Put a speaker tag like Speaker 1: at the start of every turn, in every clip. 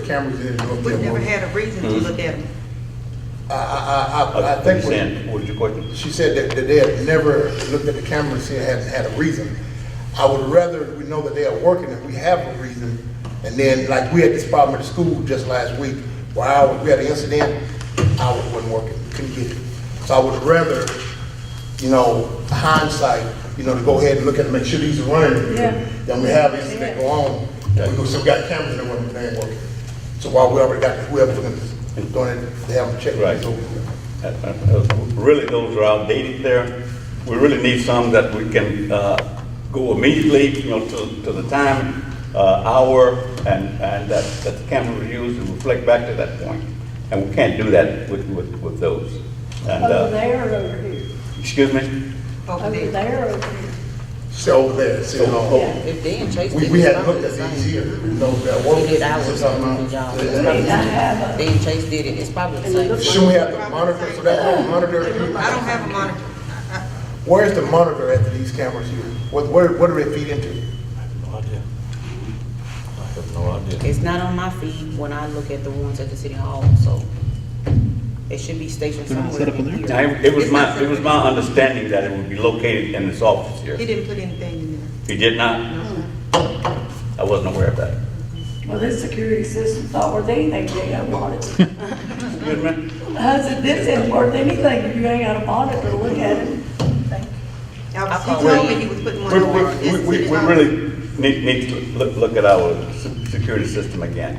Speaker 1: cameras in and look
Speaker 2: We've
Speaker 1: at
Speaker 2: never
Speaker 1: one.
Speaker 2: had a reason to look at them.
Speaker 1: I, I, I- I, I
Speaker 3: Uh,
Speaker 1: think what
Speaker 3: Sam, what was your question?
Speaker 1: She said that, that they had never looked at the camera and said, hadn't had a reason. I would rather we know that they are working and we have a reason. And then, like, we had this problem at the school just last week, where I, we had an incident, I wasn't working, couldn't get it. So I would rather, you know, hindsight, you know, to go ahead and look at it, make sure these are running.
Speaker 4: Yeah.
Speaker 1: Then we have incident go on, and we go, so we got cameras that weren't, they ain't working. So while we already got, whoever doing it, they haven't checked.
Speaker 3: Right. Uh, uh, uh, Really, those are outdated there. We really need some that we can uh, go immediately, you know, to, to the time, uh, hour, and, and that, that the camera will use and reflect back to that point. And we can't do that with, with, with those. And,
Speaker 4: Over
Speaker 3: uh,
Speaker 4: there or over here?
Speaker 3: excuse me?
Speaker 2: over
Speaker 4: Over
Speaker 2: there.
Speaker 4: there or over here?
Speaker 1: So there, so, oh,
Speaker 5: If they and Chase
Speaker 1: we,
Speaker 5: did
Speaker 1: we
Speaker 5: it,
Speaker 1: had looked at
Speaker 5: it's
Speaker 1: these here, you know, that work.
Speaker 5: We did ours,
Speaker 1: so something,
Speaker 5: we y'all.
Speaker 4: Wait, I
Speaker 1: uh,
Speaker 4: have
Speaker 5: they and Chase did it, it's probably the
Speaker 4: And it
Speaker 5: same.
Speaker 4: looks-
Speaker 1: Should we have the monitor, so that whole monitor,
Speaker 2: I don't have a monitor.
Speaker 1: where's the monitor after these cameras here? What, where, what do they feed into?
Speaker 6: No idea. I have no idea.
Speaker 5: It's not on my feed when I look at the ones at the city hall, so it should be stationed
Speaker 7: They're not
Speaker 5: somewhere.
Speaker 7: set up on
Speaker 5: in
Speaker 3: Now,
Speaker 5: here.
Speaker 3: It it was
Speaker 2: It's
Speaker 3: my,
Speaker 2: not-
Speaker 3: it was my understanding that it would be located in this office here.
Speaker 2: He didn't put anything in there.
Speaker 3: You did not? I wasn't aware of that.
Speaker 4: Well, this security system thought worth anything, they got monitored.
Speaker 3: Excuse me?
Speaker 4: I said, this isn't worth anything, if you ain't got a monitor, look at it.
Speaker 2: I was-
Speaker 5: I
Speaker 2: He told me he was putting one
Speaker 3: We,
Speaker 2: over. at
Speaker 3: we,
Speaker 2: the
Speaker 3: we- we,
Speaker 2: city
Speaker 3: we
Speaker 2: hall.
Speaker 3: really need, need to look, look at our se- security system again.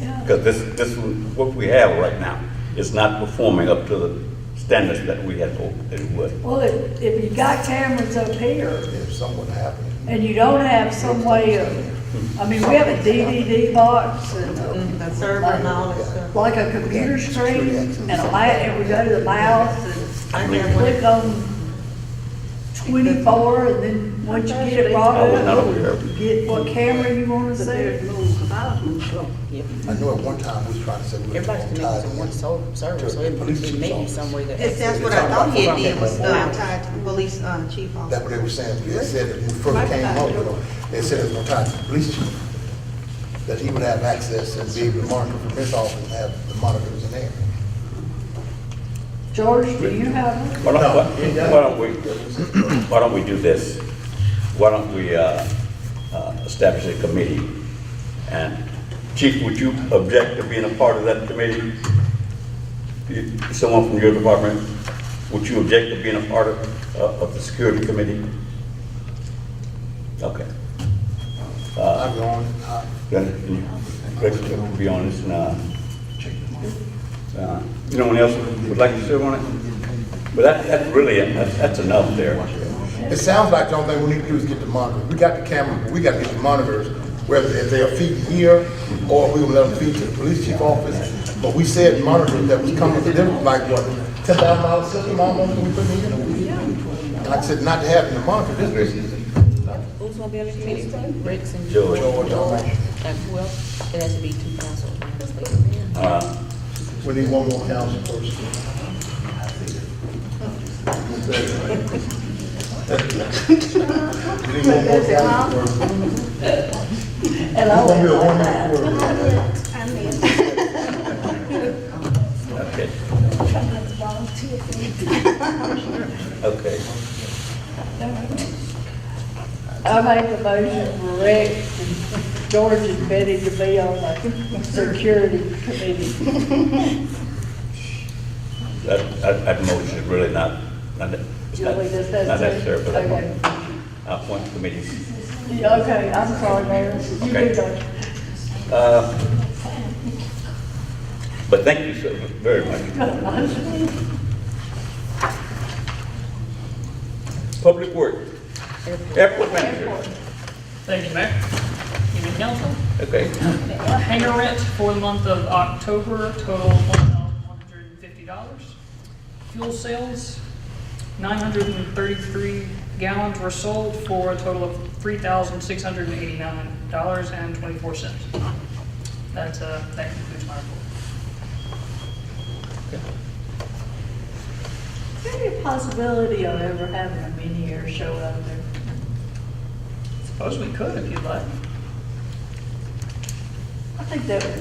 Speaker 4: Yeah.
Speaker 3: Because this, this, one- what we have right now is not performing up to the standards that we had hoped it would.
Speaker 4: Well, if, if you got cameras up here
Speaker 1: If something happened,
Speaker 4: and you don't have some way of, I mean, we have a DVD box and
Speaker 2: Mm, The
Speaker 4: a-
Speaker 2: server and all that stuff.
Speaker 4: like a computer screen and a mouse, and we go to the mouse
Speaker 2: I
Speaker 4: and
Speaker 2: have
Speaker 4: click
Speaker 2: one.
Speaker 4: on twenty-four and then once you get it brought
Speaker 3: I was Oh, not
Speaker 4: up,
Speaker 3: aware.
Speaker 4: you get what camera you wanna see.
Speaker 5: Yep.
Speaker 1: I know at one time we was trying to say we were
Speaker 5: Everybody's connected to
Speaker 1: on
Speaker 5: one
Speaker 1: time.
Speaker 5: sol- server, so it it may be some way that.
Speaker 2: That's, that's what I thought he had did was, uh, tied to the police, uh, chief
Speaker 1: That's what
Speaker 2: officer.
Speaker 1: they were saying, they said that when we first came up with them, they said it was gonna tie to the police chief. That he would have access and be able to monitor from his office and have the monitors in there.
Speaker 4: George, do you have one?
Speaker 3: Why don't, why why don't we, why don't we do this? Why don't we, uh, uh, establish a committee? And Chief, would you object to being a part of that committee? You- Someone from your department, would you object to being a part of, uh, of the security committee? Okay.
Speaker 1: I'm going, I,
Speaker 3: Then, you- Greg, to be honest, and, uh, uh, you know, anyone else would like to serve on it? But that, that's really, that's that's enough there.
Speaker 1: It sounds like the only thing we need to do is get the monitor. We got the camera, but we gotta get the monitors, whether if they are feeding here or we will let them feed to the police chief office. But we said monitors that was coming to them, like what, ten thousand dollar system almost we put in here? And Like I said, not to have the monitor, this is
Speaker 5: Who's gonna be on the committee? Rex and
Speaker 3: George.
Speaker 5: George.
Speaker 1: George, all right.
Speaker 5: Like, well, it has to be two council members.
Speaker 3: Uh,
Speaker 1: we need one more council person. We need one more council person.
Speaker 4: And I
Speaker 1: It's gonna be a
Speaker 4: went like
Speaker 1: one-man
Speaker 4: that.
Speaker 1: crew.
Speaker 3: Okay. Okay.
Speaker 4: I make a motion for Rex and George and Betty to be on the security committee.
Speaker 3: That, that, that motion is really not, not, it's not
Speaker 4: Julie, does that
Speaker 3: not
Speaker 4: say-
Speaker 3: necessary for that
Speaker 4: okay.
Speaker 3: one. I appoint committees.
Speaker 4: Yeah, Okay, I'm sorry, Mayor. You
Speaker 3: Okay.
Speaker 4: can go.
Speaker 3: Uh, But thank you so very much. Public work, airport manager,
Speaker 8: Thank you, Mayor. Evening, council.
Speaker 3: okay.
Speaker 8: Uh, Hangar rent for the month of October total $1,150. Fuel sales, 933 gallons were sold for a total of $3,689.24. That's, uh, that concludes my report.
Speaker 4: Is there any possibility of ever having a mini air show out there?
Speaker 8: Suppose we could if you'd like.
Speaker 4: I think that would